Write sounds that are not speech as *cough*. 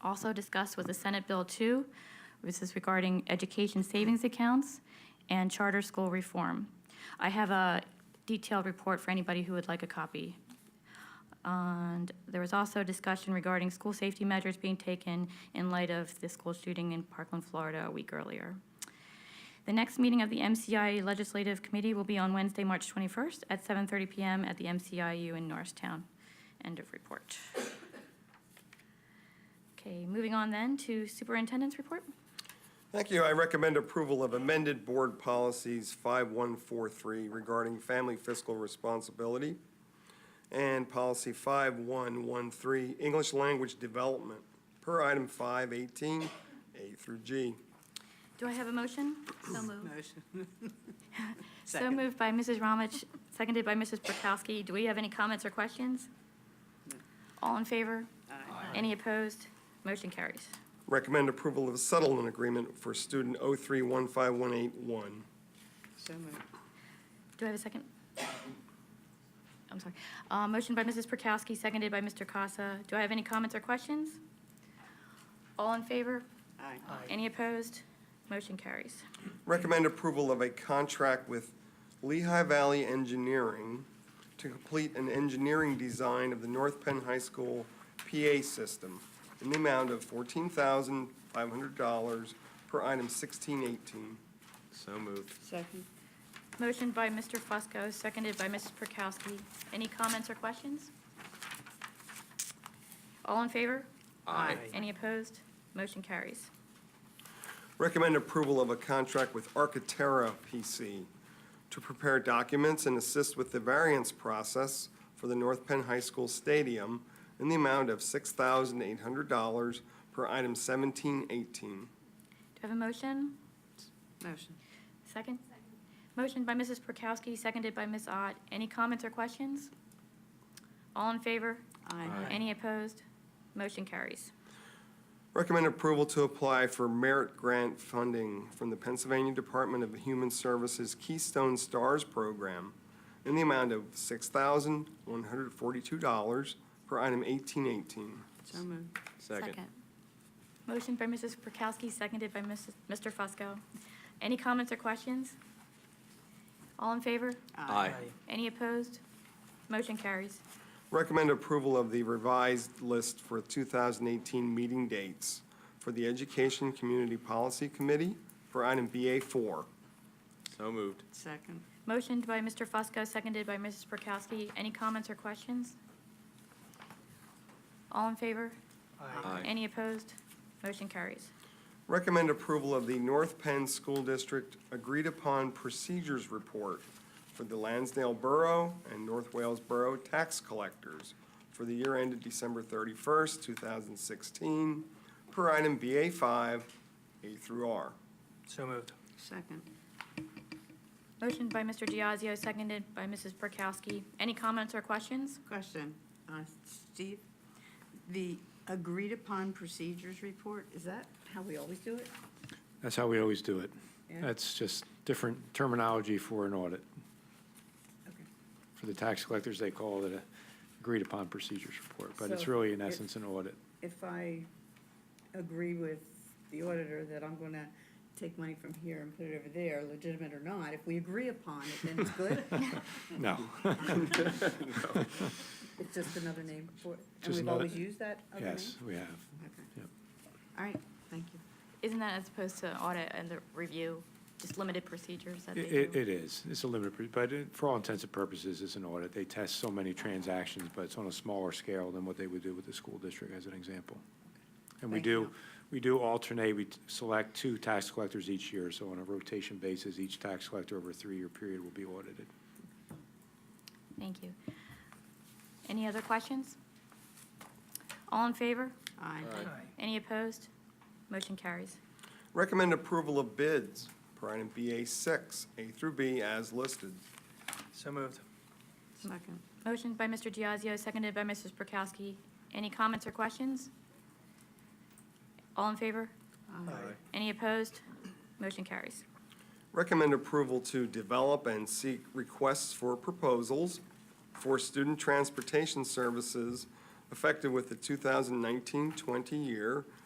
also discussed was the Senate Bill 2, which is regarding education savings accounts and charter school reform. I have a detailed report for anybody who would like a copy. And there was also discussion regarding school safety measures being taken in light of the school shooting in Parkland, Florida, a week earlier. The next meeting of the MCI Legislative Committee will be on Wednesday, March 21st at 7:30 PM at the MCIU in Norristown. End of report. Okay, moving on then to Superintendent's Report. Thank you. I recommend approval of amended board policies 5143 regarding family fiscal responsibility and policy 5113, English language development, per item 518, A through G. Do I have a motion? So moved. Motion. So Second. moved by Mrs. Ramich, seconded by Mrs. Prokowski. Do we have any comments or questions? All in favor? Any opposed? Motion carries. Recommend approval of settlement agreement for student 0315181. So moved. Do I have a second? I'm sorry. Uh, Motion by Mrs. Prokowski, seconded by Mr. Casa. Do I have any comments or questions? All in favor? Aye. Any opposed? Motion carries. Recommend approval of a contract with Lehigh Valley Engineering to complete an engineering design of the North Penn High School PA system in the amount of fourteen thousand five hundred dollars per item sixteen eighteen. So moved. Second. Motion by Mr. Fusco, seconded by Mrs. Prokowski. Any comments or questions? All in favor? Aye. Any opposed? Motion carries. Recommend approval of a contract with Architera PC to prepare documents and assist with the variance process for the North Penn High School Stadium in the amount of six thousand eight hundred dollars per item seventeen eighteen. Do I have a motion? Motion. Second? Motion by Mrs. Prokowski, seconded by Ms. Ott. Any comments or questions? All in favor? Aye. Any opposed? Motion carries. Recommend approval to apply for merit grant funding from the Pennsylvania Department of Human Services Keystone Stars Program in the amount of $6,142 per item 1818. So moved. Second. Motion by Mrs. Prokowski, seconded by Mrs. Mr. Fusco. Any comments or questions? All in favor? Aye. Any opposed? Motion carries. Recommend approval of the revised list for 2018 meeting dates for the Education Community Policy Committee for item BA4. So moved. Second. Motioned by Mr. Fusco, seconded by Mrs. Prokowski. Any comments or questions? All in favor? Aye. Any opposed? Motion carries. Recommend approval of the North Penn School District agreed-upon procedures report for the Lansdale Borough and North Wales Borough tax collectors for the year ended December 31st, 2016, per item BA5, A through R. So moved. Second. Motioned by Mr. Diazio, seconded by Mrs. Prokowski. Any comments or questions? Question, uh, Steve, the agreed-upon procedures report, is that how we always do it? That's how we always do it. Yeah. That's just different terminology for an audit. Okay. For the tax collectors, they call it a agreed-upon procedures report, but it's So really, in it- essence, an audit. If I agree with the auditor that I'm going to take money from here and put it over there, legitimate or not, if we agree upon it, then it's good? No, It's just another name for it? And Just we've another- always used that other name? *laughs* yes, we have. Okay. Yep. All right, thank you. Isn't that as opposed to audit and the review, just limited procedures that they It, do? it- it is. It's a limited, pr- but it- for all intents and purposes, it's an audit. They test so many transactions, but it's on a smaller scale than what they would do with the school district, as an example. And we Thank do, you. we do alternate, we t- select two tax collectors each year, so on a rotation basis, each tax collector over a three-year period will be audited. Thank you. Any other questions? All in favor? Aye. Any opposed? Motion carries. Recommend approval of bids per item BA6, A through B, as listed. So moved. Second. Motion by Mr. Diazio, seconded by Mrs. Prokowski. Any comments or questions? All in favor? Any opposed? Motion carries. Recommend approval to develop and seek requests for proposals for student transportation services effective with the 2019-20 year,